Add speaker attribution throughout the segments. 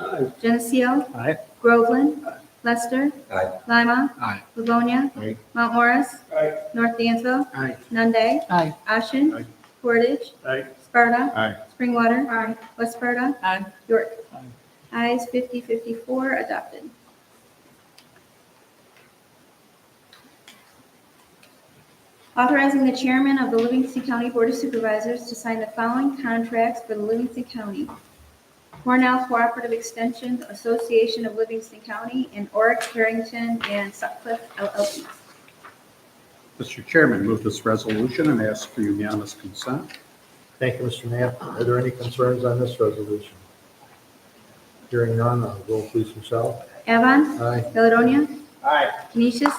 Speaker 1: Aye.
Speaker 2: Geneseo.
Speaker 3: Aye.
Speaker 2: Groveland. Lester.
Speaker 4: Aye.
Speaker 2: Lima.
Speaker 3: Aye.
Speaker 2: Livonia.
Speaker 1: Aye.
Speaker 2: Mount Morris.
Speaker 1: Aye.
Speaker 2: North Dansville.
Speaker 3: Aye.
Speaker 2: Nunde.
Speaker 5: Aye.
Speaker 2: Ashen.
Speaker 1: Aye.
Speaker 2: Portage.
Speaker 3: Aye.
Speaker 2: Sparta.
Speaker 1: Aye.
Speaker 2: Springwater. West Sparta.
Speaker 5: Aye.
Speaker 2: York. Ayes 5054 adopted. Authorizing the chairman of the Livingston County Board of Supervisors to sign the following contracts for the Livingston County. Cornell Cooperative Extension Association of Livingston County and Oric Harrington and Sutcliffe LLP.
Speaker 1: Mr. Chairman, move this resolution and ask for unanimous consent.
Speaker 6: Thank you, Mr. Knapp. Are there any concerns on this resolution? Hearing none, uh, roll please, Michelle.
Speaker 2: Avon,
Speaker 6: Aye.
Speaker 2: Caledonia,
Speaker 1: Aye.
Speaker 2: Canisius,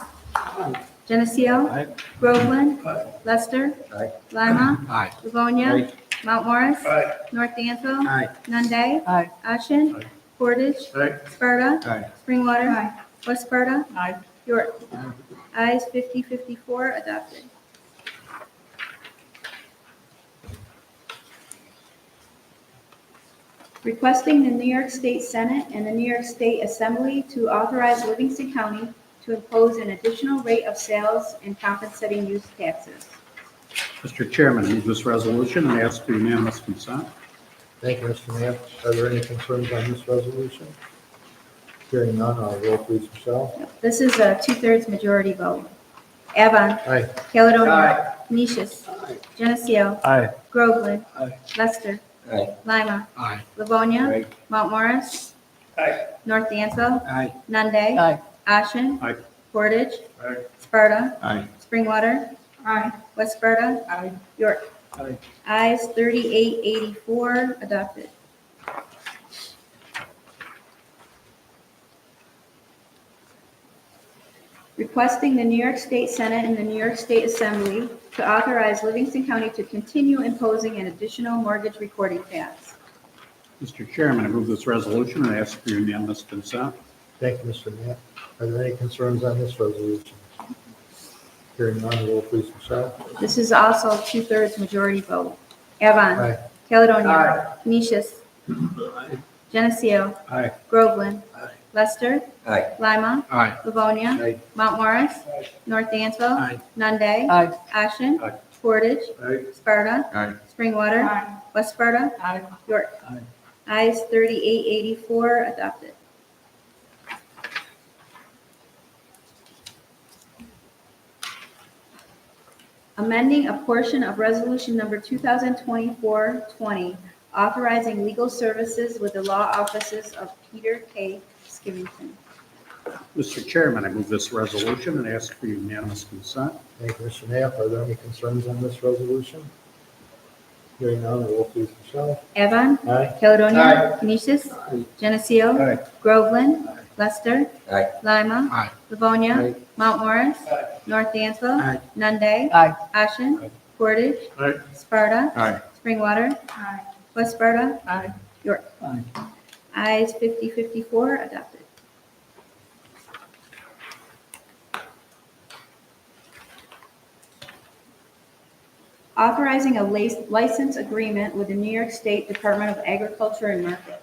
Speaker 2: Geneseo,
Speaker 3: Aye.
Speaker 2: Groveland, Lester,
Speaker 4: Aye.
Speaker 2: Lima,
Speaker 3: Aye.
Speaker 2: Livonia,
Speaker 1: Aye.
Speaker 2: Mount Morris,
Speaker 1: Aye.
Speaker 2: North Dansville,
Speaker 1: Aye.
Speaker 2: Nunde.
Speaker 5: Aye.
Speaker 2: Ashen.
Speaker 1: Aye.
Speaker 2: Portage.
Speaker 1: Aye.
Speaker 2: Sparta.
Speaker 1: Aye.
Speaker 2: Springwater. West Sparta.
Speaker 5: Aye.
Speaker 2: York. Ayes 5054 adopted. Requesting the New York State Senate and the New York State Assembly to authorize Livingston County to impose an additional rate of sales and compensating use taxes.
Speaker 1: Mr. Chairman, move this resolution and ask for unanimous consent.
Speaker 6: Thank you, Mr. Knapp. Are there any concerns on this resolution? Hearing none, uh, roll please, Michelle.
Speaker 2: This is a two-thirds majority vote. Avon.
Speaker 6: Aye.
Speaker 2: Caledonia. Canisius. Geneseo.
Speaker 3: Aye.
Speaker 2: Groveland.
Speaker 3: Aye.
Speaker 2: Lester.
Speaker 4: Aye.
Speaker 2: Lima.
Speaker 3: Aye.
Speaker 2: Livonia.
Speaker 4: Aye.
Speaker 2: Mount Morris. North Dansville.
Speaker 3: Aye.
Speaker 2: Nunde.
Speaker 5: Aye.
Speaker 2: Ashen.
Speaker 1: Aye.
Speaker 2: Portage.
Speaker 1: Aye.
Speaker 2: Sparta.
Speaker 1: Aye.
Speaker 2: Springwater. West Sparta.
Speaker 5: Aye.
Speaker 2: York.
Speaker 3: Aye.
Speaker 2: Ayes 3884 adopted. Requesting the New York State Senate and the New York State Assembly to authorize Livingston County to continue imposing an additional mortgage recording tax.
Speaker 1: Mr. Chairman, I move this resolution and ask for unanimous consent.
Speaker 6: Thank you, Mr. Knapp. Are there any concerns on this resolution? Hearing none, roll please, Michelle.
Speaker 2: This is also two-thirds majority vote. Avon.
Speaker 6: Aye.
Speaker 2: Caledonia. Canisius. Geneseo.
Speaker 1: Aye.
Speaker 2: Groveland. Lester.
Speaker 4: Aye.
Speaker 2: Lima.
Speaker 3: Aye.
Speaker 2: Livonia.
Speaker 1: Aye.
Speaker 2: Mount Morris. North Dansville.
Speaker 3: Aye.
Speaker 2: Nunde.
Speaker 5: Aye.
Speaker 2: Ashen.
Speaker 1: Aye.
Speaker 2: Portage.
Speaker 1: Aye.
Speaker 2: Sparta.
Speaker 4: Aye.
Speaker 2: Springwater. West Sparta.
Speaker 5: Aye.
Speaker 2: York.
Speaker 3: Aye.
Speaker 2: Ayes 3884 adopted. Amending a portion of Resolution Number 2024-20, authorizing legal services with the law offices of Peter K. Skivington.
Speaker 1: Mr. Chairman, I move this resolution and ask for unanimous consent.
Speaker 6: Thank you, Mr. Knapp. Are there any concerns on this resolution? Hearing none, roll please, Michelle.
Speaker 2: Evan.
Speaker 6: Aye.
Speaker 2: Caledonia. Canisius. Geneseo.
Speaker 1: Aye.
Speaker 2: Groveland. Lester.
Speaker 4: Aye.
Speaker 2: Lima.
Speaker 3: Aye.
Speaker 2: Livonia.
Speaker 1: Aye.
Speaker 2: Mount Morris. North Dansville.
Speaker 3: Aye.
Speaker 2: Nunde.
Speaker 5: Aye.
Speaker 2: Ashen. Portage.
Speaker 1: Aye.
Speaker 2: Sparta.
Speaker 1: Aye.
Speaker 2: Springwater. West Sparta.
Speaker 5: Aye.
Speaker 2: York.
Speaker 3: Aye.
Speaker 2: Ayes 54 adopted. Authorizing a lic- license agreement with the New York State Department of Agriculture and Markets.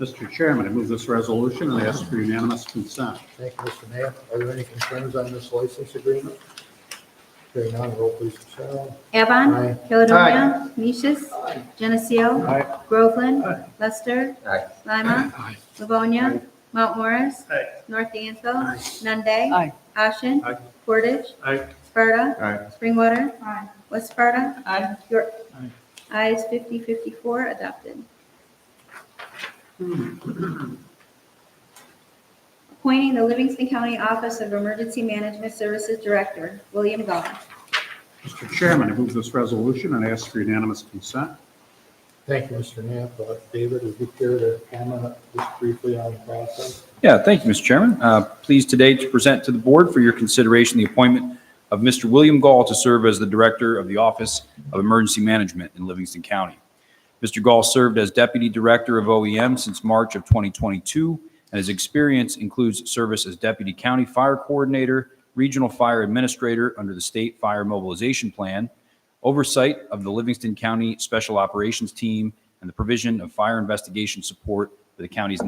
Speaker 1: Mr. Chairman, I move this resolution and ask for unanimous consent.
Speaker 6: Thank you, Mr. Knapp. Are there any concerns on this license agreement? Hearing none, roll please, Michelle.
Speaker 2: Avon.
Speaker 6: Aye.
Speaker 2: Caledonia. Canisius. Geneseo.
Speaker 3: Aye.
Speaker 2: Groveland. Lester.
Speaker 4: Aye.
Speaker 2: Lima.
Speaker 3: Aye.
Speaker 2: Livonia. Mount Morris.
Speaker 1: Aye.
Speaker 2: North Dansville. Nunde.
Speaker 5: Aye.
Speaker 2: Ashen.
Speaker 1: Aye.
Speaker 2: Portage.
Speaker 1: Aye.
Speaker 2: Sparta.
Speaker 4: Aye.
Speaker 2: Springwater. West Sparta.
Speaker 5: Aye.
Speaker 2: York. Ayes 5054 adopted. Appointing the Livingston County Office of Emergency Management Services Director, William Gall.
Speaker 1: Mr. Chairman, I move this resolution and ask for unanimous consent.
Speaker 6: Thank you, Mr. Knapp. Uh, David, would you care to comment just briefly on the process?
Speaker 7: Yeah, thank you, Mr. Chairman. Uh, Pleased today to present to the board for your consideration the appointment of Mr. William Gall to serve as the Director of the Office of Emergency Management in Livingston County. Mr. Gall served as Deputy Director of OEM since March of 2022, and his experience includes service as Deputy County Fire Coordinator, Regional Fire Administrator under the State Fire Mobilization Plan, oversight of the Livingston County Special Operations Team, and the provision of fire investigation support for the county's